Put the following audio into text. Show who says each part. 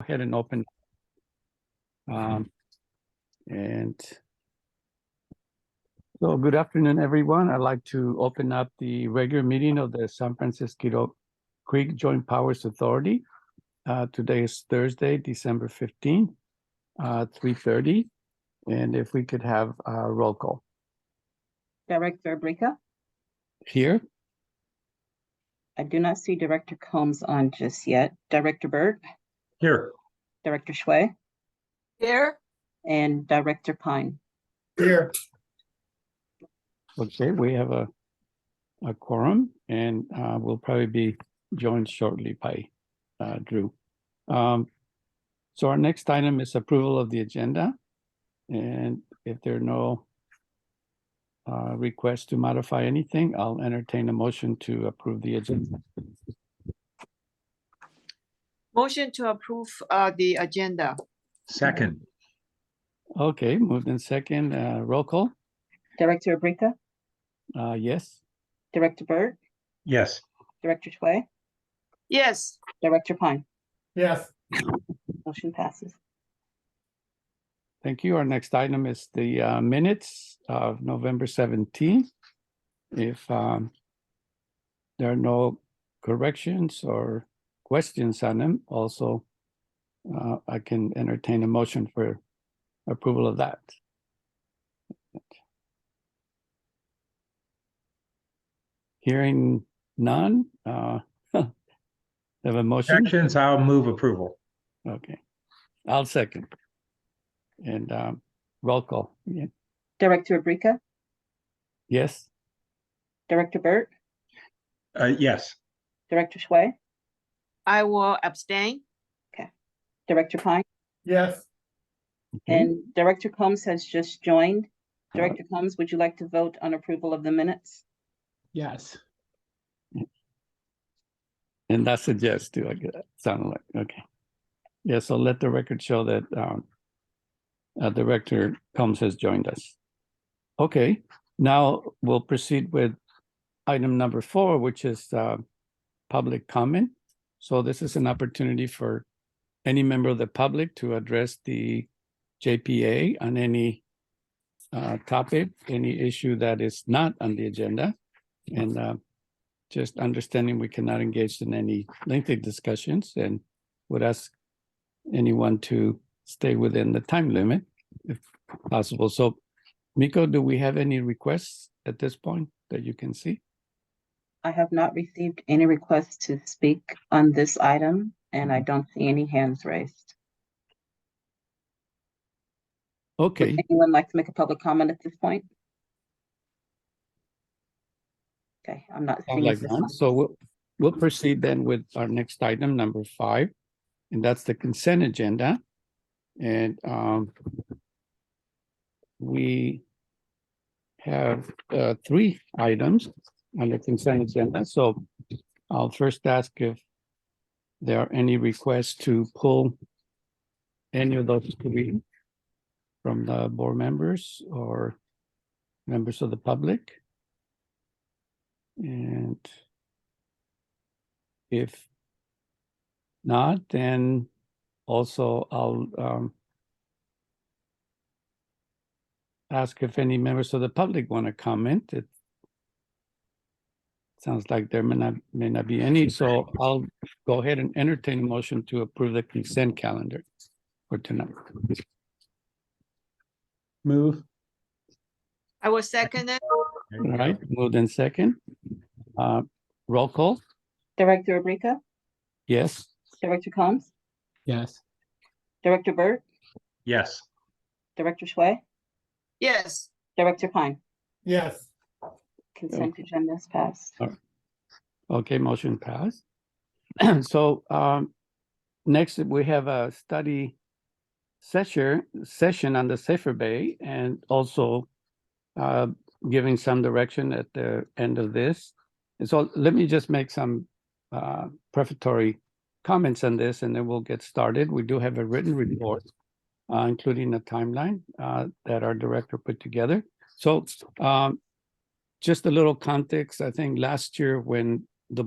Speaker 1: ahead and open. Um, and so good afternoon, everyone. I'd like to open up the regular meeting of the San Francisco Creek Joint Powers Authority. Uh, today is Thursday, December fifteenth, uh, three thirty. And if we could have a roll call
Speaker 2: Director Abrika,
Speaker 1: here,
Speaker 2: I do not see Director Combs on just yet. Director Byrd,
Speaker 3: Here.
Speaker 2: Director Schway,
Speaker 4: Here,
Speaker 2: and Director Pine.
Speaker 3: Here.
Speaker 1: okay, we have a a quorum and, uh, we'll probably be joined shortly by, uh, Drew. Um, so our next item is approval of the agenda. And if there are no uh, requests to modify anything, I'll entertain a motion to approve the agenda.
Speaker 4: motion to approve uh the agenda.
Speaker 3: Second.
Speaker 1: Okay, moved in second, uh, roll call,
Speaker 2: Director Abrika,
Speaker 1: uh, yes?
Speaker 2: Director Byrd,
Speaker 3: Yes.
Speaker 2: Director Schway,
Speaker 4: Yes,
Speaker 2: Director Pine.
Speaker 3: Yes.
Speaker 2: Motion passes.
Speaker 1: Thank you. Our next item is the uh, minutes of November seventeenth. If um, there are no corrections or questions on them, also uh, I can entertain a motion for approval of that. Hearing none, uh, have a motion?
Speaker 3: Actions, I'll move approval.
Speaker 1: Okay, I'll second. And um, roll call, Yeah.
Speaker 2: Director Abrika,
Speaker 1: yes?
Speaker 2: Director Byrd,
Speaker 3: Uh, yes.
Speaker 2: Director Schway,
Speaker 4: I will abstain.
Speaker 2: Director Pine,
Speaker 3: Yes.
Speaker 1: Okay.
Speaker 2: and Director Combs has just joined. Director Combs, would you like to vote on approval of the minutes?
Speaker 3: Yes.
Speaker 1: And that's a yes too, I get it, sounded like, okay. Yeah, so let the record show that um uh Director Combs has joined us. Okay, now we'll proceed with item number four, which is uh public comment. So this is an opportunity for any member of the public to address the JPA on any uh topic, any issue that is not on the agenda. And uh just understanding we cannot engage in any lengthy discussions and would ask anyone to stay within the time limit if possible. So Miko, do we have any requests at this point that you can see?
Speaker 2: I have not received any requests to speak on this item, and
Speaker 1: Mm-hmm.
Speaker 2: I don't see any hands raised.
Speaker 1: Okay,
Speaker 2: Anyone like to make a public comment at this point? Okay, I'm not
Speaker 1: sounds
Speaker 2: seeing
Speaker 1: like
Speaker 2: this
Speaker 1: none.
Speaker 2: one.
Speaker 1: so we'll, we'll proceed then with our next item, number five. And that's the consent agenda. And um we have uh three items on the consent agenda, so I'll first ask if there are any requests to pull any of those three from the board members or members of the public. And if not, then also I'll um ask if any members of the public want to comment. It sounds like there may not, may not be any, so I'll go ahead and entertain a motion to approve the consent calendar for tonight.
Speaker 3: Move.
Speaker 4: I will second it.
Speaker 1: All right, moved in second. Uh, roll call,
Speaker 2: Director Abrika,
Speaker 1: yes?
Speaker 2: Director Combs,
Speaker 3: Yes.
Speaker 2: Director Burt,
Speaker 3: Yes.
Speaker 2: Director Schway,
Speaker 4: Yes,
Speaker 2: Director Pine.
Speaker 3: Yes.
Speaker 2: Consent agenda is passed.
Speaker 1: Okay, motion passed. So um, next, we have a study session, session on the Safer Bay and also uh, giving some direction at the end of this. And so let me just make some uh, prefatory comments on this and then we'll get started. We do have a written report, uh, including a timeline uh, that our director put together. So um, just a little context, I think last year when